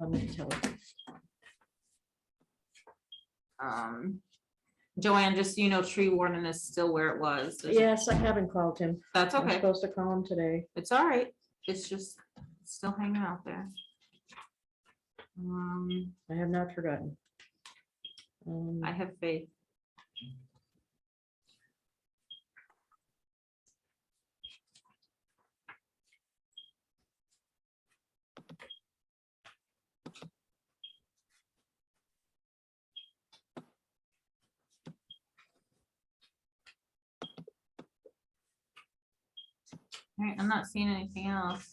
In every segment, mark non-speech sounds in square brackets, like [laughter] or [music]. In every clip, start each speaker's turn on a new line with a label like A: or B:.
A: I'm gonna tell her.
B: Um, Joanne, just so you know, tree warden is still where it was. There's-
A: Yes, I haven't called him.
B: That's
A: I'm
B: okay.
A: supposed to call him today.
B: It's all right. It's just still hanging out there. Um,
A: I have not forgotten. Um,
B: I have faith. All right, I'm not seeing anything else.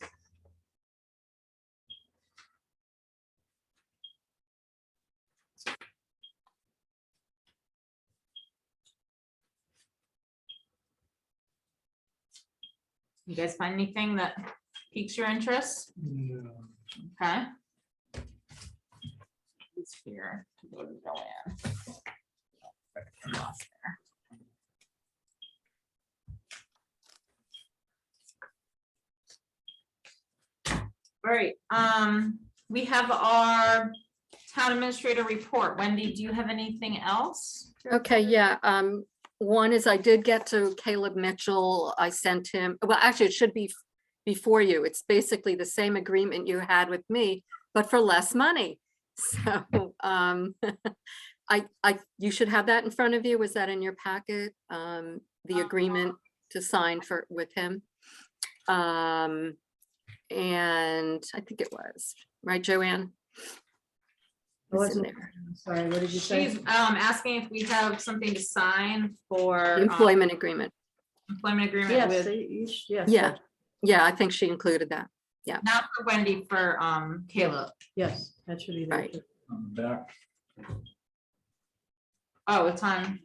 B: You guys find anything that piques your interest?
C: No.
B: Okay. It's here to go to Joanne. I lost there. All right, um, we have our town administrator report. Wendy, do you have anything else?
D: Okay, yeah, um, one is I did get to Caleb Mitchell. I sent him, well, actually, it should be f- before you. It's basically the same agreement you had with me, but for less money. [laughs] So, um, [laughs] I, I, you should have that in front of you. Was that in your packet? Um, the
B: Uh-huh.
D: agreement to sign for, with him? Um, and I think it was, right, Joanne?
A: I
D: It's in
A: wasn't-
D: there.
A: I'm Sorry, what did you
B: She's
A: say?
B: um asking if we have something to sign for
D: The
B: um,
D: Employment agreement.
B: employment agreement
A: Yes,
B: with
A: they- you sh- yes.
D: Yeah.
A: that's-
D: Yeah, I think she included that.
B: Not for Wendy, for um Caleb.
A: Yes, that should be there.
D: Right.
A: too.
C: On the back,
B: Oh, it's on.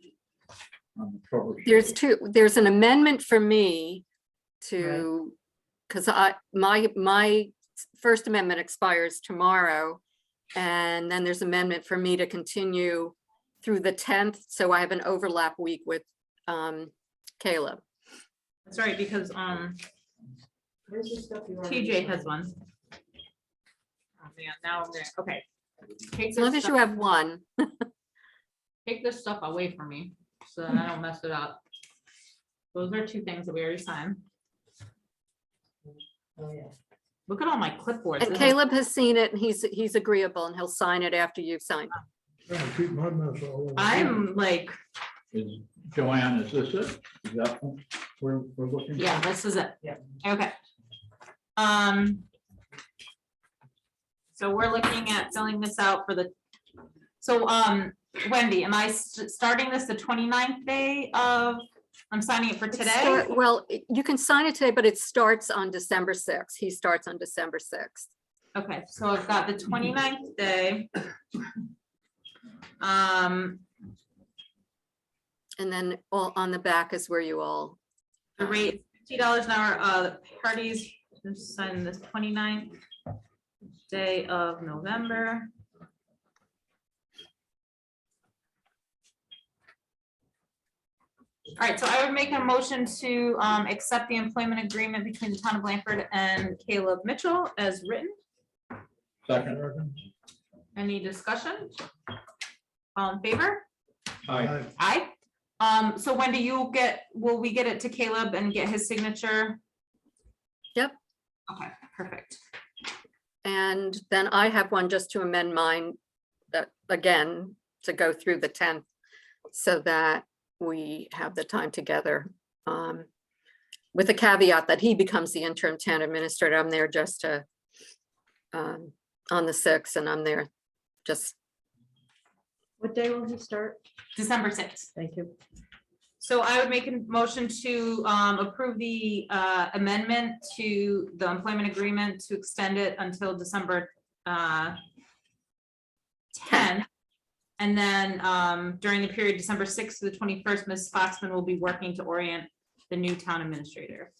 C: on the cover.
D: There's two, there's an amendment for me to, because I, my, my First Amendment expires tomorrow. And then there's amendment for me to continue through the tenth, so I have an overlap week with um Caleb.
B: That's right, because um
A: Where's the stuff you already
B: TJ
A: signed?
B: has one. Oh man, now I'm there. Okay. Take
D: As long
B: this
D: as you
B: stuff,
D: have one,
B: take this stuff away from me so that I don't mess it up. Those are two things that we already signed.
A: Oh, yeah.
B: Look at all my clipboards.
D: and
B: This is-
D: Caleb has seen it, and he's, he's agreeable, and he'll sign it after you've signed.
E: Trying to keep my mouth all over.
B: I'm like,
C: Is- Joanne, is this it? Is that one we're, we're looking?
B: yeah, this is it.
A: Yeah.
B: Okay. Um. So we're looking at filling this out for the, so um Wendy, am I s- starting this the 29th day of, I'm signing it for
D: It
B: today?
D: start- Well, it- you can sign it today, but it starts on December sixth. He starts on December sixth.
B: Okay, so I've got the 29th day. Um,
D: And then all on the back is where you all
B: the rate fifty dollars an hour, uh, the parties, sign this 29th day of November. All right, so I would make a motion to um accept the employment agreement between the town of Blanford and Caleb Mitchell as written.
C: Second.
B: Any discussion? All in favor?
C: Hi.
B: Aye. Um, so Wendy, you get, will we get it to Caleb and get his signature?
D: Yep.
B: Okay, perfect.
D: And then I have one just to amend mine, that, again, to go through the tenth, so that we have the time together. um, With a caveat that he becomes the interim town administrator, I'm there just to, um, on the sixth, and I'm there just,
A: What day will he start?
B: December sixth.
A: Thank you.
B: So I would make a motion to um approve the uh amendment to the employment agreement to extend it until December uh ten. And then um during the period December sixth to the twenty-first, Ms. Foxman will be working to orient the new town administrator.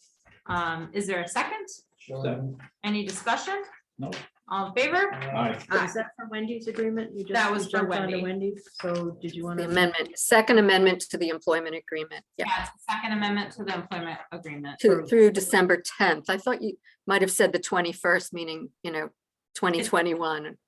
B: Um, is there a second?
C: Second.
B: Any discussion?
C: No.
B: All in favor?
C: Hi.
A: So Is that for Wendy's agreement? You just-
B: Ah. That
A: you
B: was for
A: jumped onto
B: Wendy.
A: Wendy's, so did you want
D: the
A: to?
D: amendment, second amendment to the employment agreement, yeah,
B: Yeah, it's the second amendment to the employment agreement.
D: to, through December tenth. I thought you might have said the twenty-first, meaning, you know, twenty twenty-one.